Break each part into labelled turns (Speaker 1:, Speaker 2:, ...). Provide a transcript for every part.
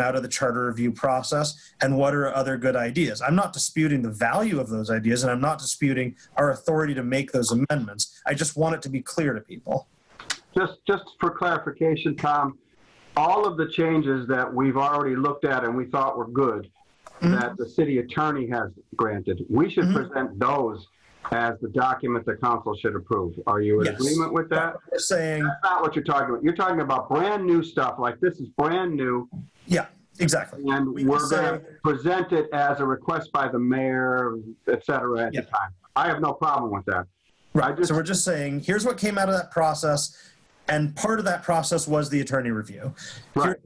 Speaker 1: out of the charter review process and what are other good ideas. I'm not disputing the value of those ideas and I'm not disputing our authority to make those amendments. I just want it to be clear to people.
Speaker 2: Just, just for clarification, Tom, all of the changes that we've already looked at and we thought were good,
Speaker 1: Mm-hmm.
Speaker 2: that the city attorney has granted, we should present those as the document the council should approve. Are you in
Speaker 1: Yes.
Speaker 2: agreement with that?
Speaker 1: We're saying,
Speaker 2: That's not what you're talking about. You're talking about brand new stuff, like this is brand new,
Speaker 1: yeah, exactly.
Speaker 2: and
Speaker 1: We
Speaker 2: we're
Speaker 1: say-
Speaker 2: gonna present it as a request by the mayor, et cetera, at
Speaker 1: Yeah.
Speaker 2: the time. I have no problem with that. I
Speaker 1: Right.
Speaker 2: just-
Speaker 1: So we're just saying, here's what came out of that process. And part of that process was the attorney review.
Speaker 2: Right.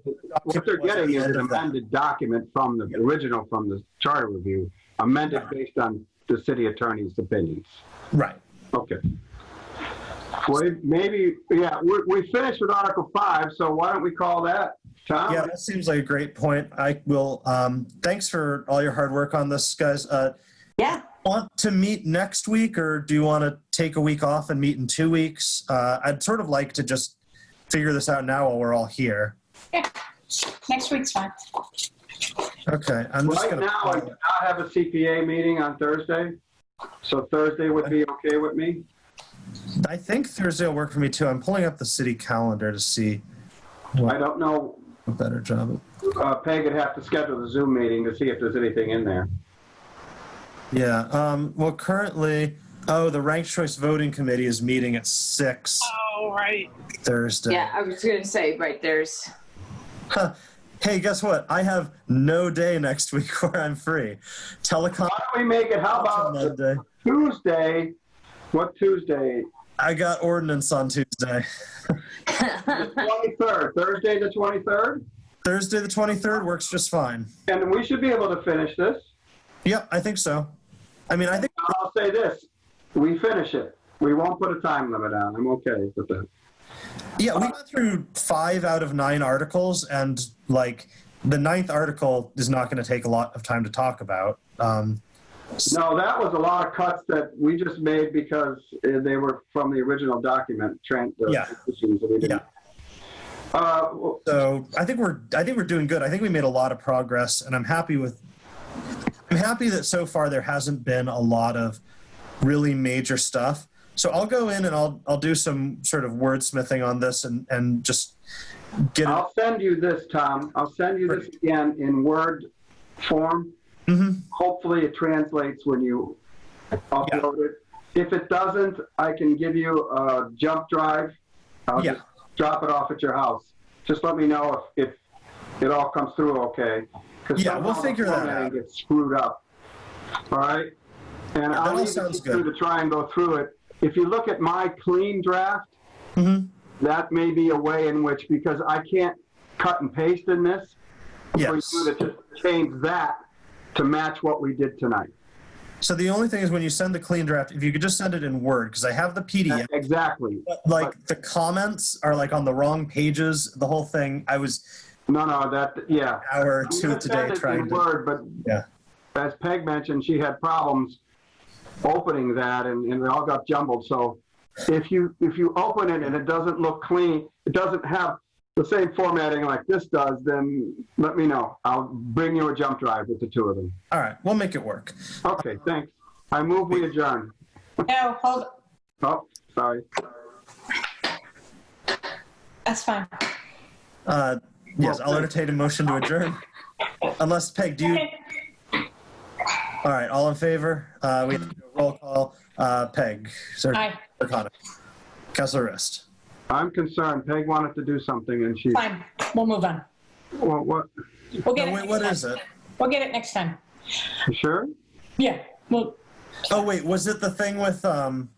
Speaker 2: What they're getting is an
Speaker 1: End of that.
Speaker 2: amended document from the original, from the charter review, amended based on the city attorney's opinions.
Speaker 1: Right.
Speaker 2: Okay. Well, maybe, yeah, we, we finished with Article Five, so why don't we call that,
Speaker 1: Yeah,
Speaker 2: Tom?
Speaker 1: that seems like a great point. I will, um, thanks for all your hard work on this, guys. Uh,
Speaker 3: Yeah,
Speaker 1: want to meet next week or do you want to take a week off and meet in two weeks? Uh, I'd sort of like to just figure this out now while we're all here.
Speaker 3: next week's fine.
Speaker 1: Okay, I'm just
Speaker 2: Right
Speaker 1: gonna.
Speaker 2: now, I do not have a CPA meeting on Thursday, so Thursday would be okay with me.
Speaker 1: I think Thursday will work for me too. I'm pulling up the city calendar to see
Speaker 2: I don't know,
Speaker 1: a better job.
Speaker 2: uh, Peg would have to schedule the Zoom meeting to see if there's anything in there.
Speaker 1: Yeah. Um, well, currently, oh, the ranked choice voting committee is meeting at six
Speaker 4: Oh, right.
Speaker 1: Thursday.
Speaker 3: Yeah, I was gonna say, right, there's,
Speaker 1: Huh. Hey, guess what? I have no day next week where I'm free. Telecom.
Speaker 2: Why don't we make it, how about the
Speaker 1: Monday.
Speaker 2: Tuesday, what Tuesday?
Speaker 1: I got ordinance on Tuesday.
Speaker 2: The 23rd, Thursday the 23rd?
Speaker 1: Thursday the 23rd works just fine.
Speaker 2: And we should be able to finish this.
Speaker 1: Yep, I think so. I mean, I think
Speaker 2: I'll say this, we finish it. We won't put a time limit on, I'm okay with that.
Speaker 1: yeah, we got through five out of nine articles, and like the ninth article is not going to take a lot of time to talk about. Um,
Speaker 2: No, that was a lot of cuts that we just made because uh, they were from the original document, Trent. the
Speaker 1: Yeah.
Speaker 2: decisions that we did.
Speaker 1: Yeah.
Speaker 2: Uh, well,
Speaker 1: so I think we're I think we're doing good. I think we made a lot of progress, and I'm happy with. I'm happy that so far there hasn't been a lot of really major stuff. So I'll go in and I'll I'll do some sort of wordsmithing on this and and just get it.
Speaker 2: I'll send you this, Tom, I'll send you this again in Word form.
Speaker 1: Mhm.
Speaker 2: hopefully it translates when you upload it. If it doesn't, I can give you a jump drive. I'll
Speaker 1: Yeah.
Speaker 2: just drop it off at your house. Just let me know if, if it all comes through okay. 'Cause
Speaker 1: Yeah, we'll
Speaker 2: somehow the
Speaker 1: figure that
Speaker 2: formatting
Speaker 1: out.
Speaker 2: gets screwed up. All right? And
Speaker 1: that all
Speaker 2: I'll leave
Speaker 1: sounds
Speaker 2: it to you
Speaker 1: good.
Speaker 2: to try and go through it. If you look at my clean draft,
Speaker 1: Mhm.
Speaker 2: that may be a way in which, because I can't cut and paste in this, for
Speaker 1: Yes.
Speaker 2: you to just change that to match what we did tonight.
Speaker 1: So the only thing is when you send the clean draft, if you could just send it in Word, because I have the PDF.
Speaker 2: Exactly.
Speaker 1: But like the comments are like on the wrong pages. The whole thing. I was
Speaker 2: No, no, that, yeah.
Speaker 1: an hour or two
Speaker 2: You said
Speaker 1: today
Speaker 2: it in
Speaker 1: trying to.
Speaker 2: Word, but.
Speaker 1: Yeah.
Speaker 2: As Peg mentioned, she had problems opening that and, and it all got jumbled, so if you, if you open it and it doesn't look clean, it doesn't have the same formatting like this does, then let me know. I'll bring you a jump drive with the two of them.
Speaker 1: All right, we'll make it work.
Speaker 2: Okay, thanks. I move we adjourn.
Speaker 3: no, hold,
Speaker 2: Oh, sorry.
Speaker 3: that's fine.
Speaker 1: Uh, yes, I'll entertain a motion to adjourn. Unless Peg, do you? All right, all in favor? Uh, we have to do a roll call. Uh, Peg, Sir
Speaker 3: Aye,
Speaker 1: O'Connor, Councilor Rist.
Speaker 2: I'm concerned. Peg wanted to do something and she,
Speaker 3: fine, we'll move on.
Speaker 2: well, what,
Speaker 3: We'll get
Speaker 1: No, Oh, wait,
Speaker 3: it next
Speaker 1: what
Speaker 3: time.
Speaker 1: is it?
Speaker 3: We'll get it next time.
Speaker 2: you sure?
Speaker 3: Yeah, well,
Speaker 1: Oh wait, was it the thing with um,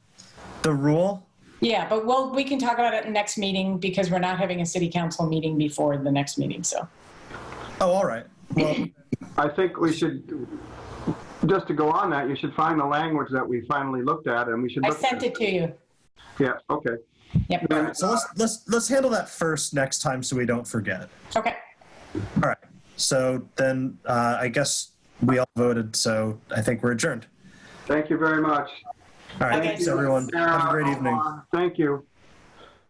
Speaker 1: the rule?
Speaker 3: yeah, but we'll, we can talk about it in next meeting because we're not having a city council meeting before the next meeting, so.
Speaker 1: Oh, all right. Well,
Speaker 2: I think we should, just to go on that, you should find the language that we finally looked at and we should
Speaker 3: I
Speaker 2: look.
Speaker 3: sent it to you.
Speaker 2: Yeah, okay.
Speaker 3: Yep,
Speaker 1: all right, so let's let's let's handle that first next time so we don't forget.
Speaker 3: okay.
Speaker 1: All right. So then uh, I guess we all voted. So I think we're adjourned.
Speaker 2: Thank you very much.
Speaker 1: All right.
Speaker 3: Okay.
Speaker 1: Thanks, everyone. Have a great evening.
Speaker 2: Thank you.